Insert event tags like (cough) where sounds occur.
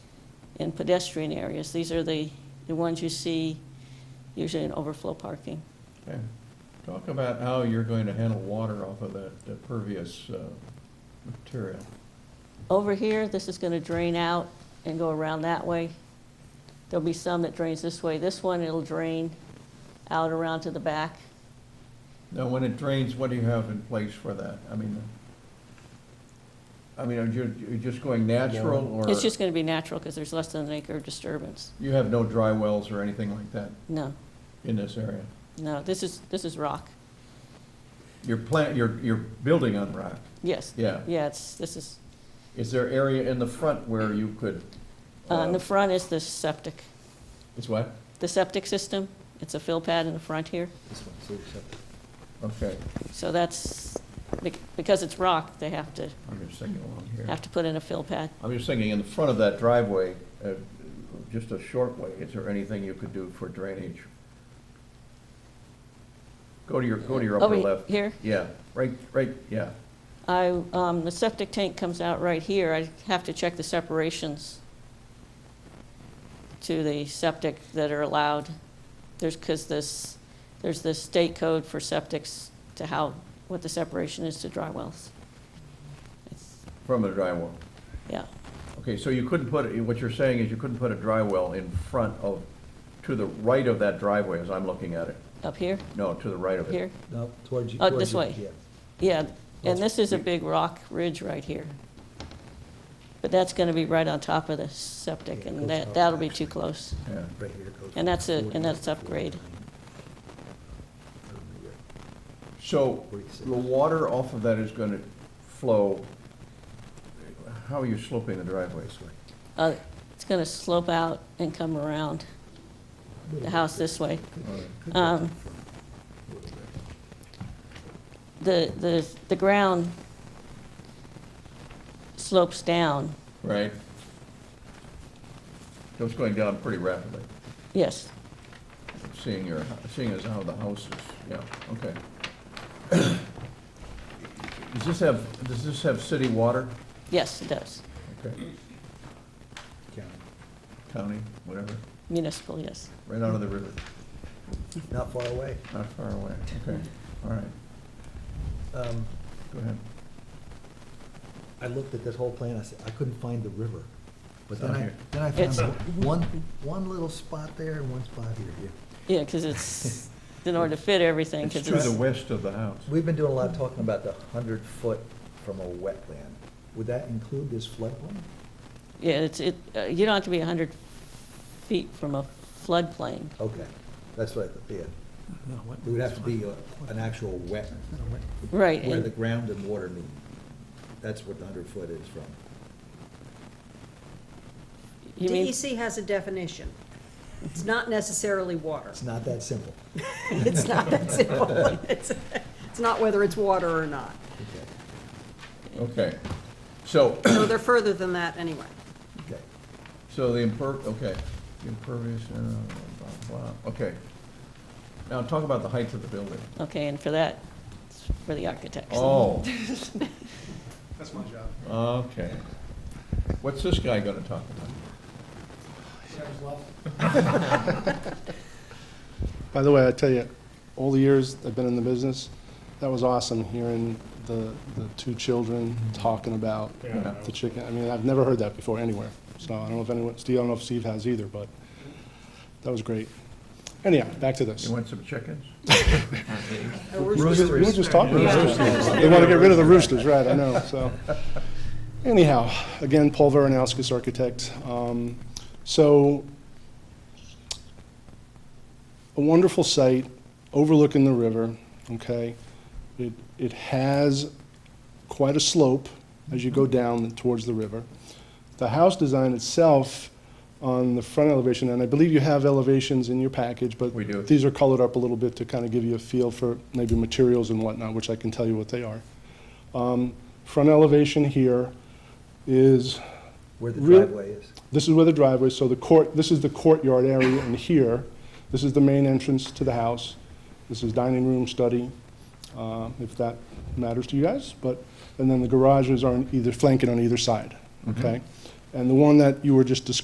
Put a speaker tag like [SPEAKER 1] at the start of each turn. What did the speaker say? [SPEAKER 1] and pedestrian areas. These are the, the ones you see usually in overflow parking.
[SPEAKER 2] Okay. Talk about how you're going to handle water off of that uh, pervious uh, material.
[SPEAKER 1] Over here, this is going to drain out and go around that way. There'll be some that drains this way. This one, it'll drain out around to the back.
[SPEAKER 2] Now, when it drains, what do you have in place for that? I mean, I mean, are you, you just going natural or?
[SPEAKER 1] It's just going to be natural because there's less than an acre of disturbance.
[SPEAKER 2] You have no dry wells or anything like that
[SPEAKER 1] No,
[SPEAKER 2] in this area?
[SPEAKER 1] no, this is, this is rock.
[SPEAKER 2] You're plant, you're, you're building on rock,
[SPEAKER 1] Yes.
[SPEAKER 2] yeah.
[SPEAKER 1] Yeah, it's, this is,
[SPEAKER 2] Is there area in the front where you could?
[SPEAKER 1] uh, in the front is the septic.
[SPEAKER 2] It's what?
[SPEAKER 1] The septic system, it's a fill pad in the front here.
[SPEAKER 3] This one, so accept.
[SPEAKER 2] Okay,
[SPEAKER 1] So that's, bec- because it's rock, they have to,
[SPEAKER 2] I'm just thinking along here.
[SPEAKER 1] have to put in a fill pad.
[SPEAKER 2] I'm just thinking, in the front of that driveway, uh, just a short way, is there anything you could do for drainage? Go to your, go to your upper
[SPEAKER 1] Over he-
[SPEAKER 2] left.
[SPEAKER 1] Oh, Here,
[SPEAKER 2] Yeah, right, right, yeah.
[SPEAKER 1] I, um, the septic tank comes out right here. I have to check the separations to the septic that are allowed. There's, because this, there's this state code for septics to how, what the separation is to dry wells. It's-
[SPEAKER 2] From the dry well.
[SPEAKER 1] Yeah,
[SPEAKER 2] Okay, so you couldn't put, what you're saying is you couldn't put a dry well in front of, to the right of that driveway, as I'm looking at it.
[SPEAKER 1] up here,
[SPEAKER 2] No, to the right of it.
[SPEAKER 1] here.
[SPEAKER 3] No, towards you.
[SPEAKER 1] Oh,
[SPEAKER 3] towards
[SPEAKER 1] this
[SPEAKER 3] you,
[SPEAKER 1] way.
[SPEAKER 3] yeah.
[SPEAKER 1] Yeah,
[SPEAKER 3] That's-
[SPEAKER 1] and this is a big rock ridge right here. But that's going to be right on top of the septic,
[SPEAKER 3] Yeah,
[SPEAKER 1] and
[SPEAKER 3] goes
[SPEAKER 1] that,
[SPEAKER 3] up.
[SPEAKER 1] that'll be too close.
[SPEAKER 2] Yeah.
[SPEAKER 3] Right here goes.
[SPEAKER 1] And that's a-
[SPEAKER 3] 40,
[SPEAKER 1] and that's upgrade.
[SPEAKER 3] 49.
[SPEAKER 2] So
[SPEAKER 3] Forty-six.
[SPEAKER 2] the water off of that is going to flow, how are you sloping the driveways?
[SPEAKER 3] This way.
[SPEAKER 1] Uh, It's going to slope out and come around the house this way. Um, The, the, the ground slopes down,
[SPEAKER 2] Right? So it's going down pretty rapidly,
[SPEAKER 1] yes.
[SPEAKER 2] seeing your, seeing as how the house is, yeah, okay. (coughs) Does this have, does this have city water?
[SPEAKER 1] Yes, it does.
[SPEAKER 2] Okay, county, whatever,
[SPEAKER 1] Municipal, yes.
[SPEAKER 2] right out of the river,
[SPEAKER 3] Not far away.
[SPEAKER 2] not far away, okay, all right,
[SPEAKER 3] Um,
[SPEAKER 2] go ahead.
[SPEAKER 3] I looked at this whole plan, I said, I couldn't find the river. But
[SPEAKER 2] It's
[SPEAKER 3] then
[SPEAKER 2] out
[SPEAKER 3] I,
[SPEAKER 2] here.
[SPEAKER 3] then I
[SPEAKER 1] It's-
[SPEAKER 3] found one, one little spot there and one spot here. yeah.
[SPEAKER 1] Yeah, because
[SPEAKER 2] (laughs)
[SPEAKER 1] it's, in order to fit everything,
[SPEAKER 2] It's
[SPEAKER 1] because
[SPEAKER 2] to the
[SPEAKER 1] it's,
[SPEAKER 2] west of the house.
[SPEAKER 3] We've been doing a lot of talking about the hundred foot from a wetland. Would that include this floodplain?
[SPEAKER 1] yeah, it's, it, uh, you don't have to be 100 feet from a floodplain.
[SPEAKER 3] Okay, that's what I thought, yeah. It would have to be a- an actual wet,
[SPEAKER 1] Right,
[SPEAKER 3] where the
[SPEAKER 1] and
[SPEAKER 3] ground and water meet. That's what the hundred foot is from.
[SPEAKER 1] you mean,
[SPEAKER 4] DEC E has a definition. It's not necessarily water.
[SPEAKER 3] It's not
[SPEAKER 1] (laughs)
[SPEAKER 3] that simple.
[SPEAKER 4] (laughs) It's not that simple. It's it's not whether it's water or not.
[SPEAKER 3] Okay,
[SPEAKER 2] Okay, so, (coughs)
[SPEAKER 4] So they're further than that anyway.
[SPEAKER 3] okay.
[SPEAKER 2] so the imper, okay, the impervious, uh, blah, blah, blah, okay. Now, talk about the height of the building.
[SPEAKER 1] okay, and for that, it's for the architects.
[SPEAKER 2] Oh,
[SPEAKER 5] (laughs) That's my job.
[SPEAKER 2] okay. What's this guy gonna talk about?
[SPEAKER 5] By the way, I tell you, all the years I've been in the business, that was awesome hearing the, the two children talking about
[SPEAKER 2] Yeah.
[SPEAKER 5] the chicken. I mean, I've never heard that before anywhere. So I don't know if anyone, Steve, I don't know if Steve has either, but that was great. Anyhow, back to this.
[SPEAKER 2] You want some chickens?
[SPEAKER 5] We were- we were just talking about roosters. They want to get rid of the roosters, right, I know, so. Anyhow, again, Paul Veronowskis, architect. Um, So, a wonderful site overlooking the river, okay? It, it has quite a slope as you go
[SPEAKER 2] Mm-hmm.
[SPEAKER 5] down towards the river. The house design itself on the front elevation, and I believe you have elevations in your package, but
[SPEAKER 2] We do.
[SPEAKER 5] these are colored up a little bit to kind of give you a feel for maybe materials and whatnot, which I can tell you what they are. Um, Front elevation here is,
[SPEAKER 3] Where the
[SPEAKER 5] Real-
[SPEAKER 3] driveway is.
[SPEAKER 5] this is where the driveway, is. so the court, this is the courtyard area in here. This is the main entrance to the house. This is dining room, study, uh, if that matters to you guys. But, and then the garages are on either, flanking on either side, okay? And the one that you were just discussing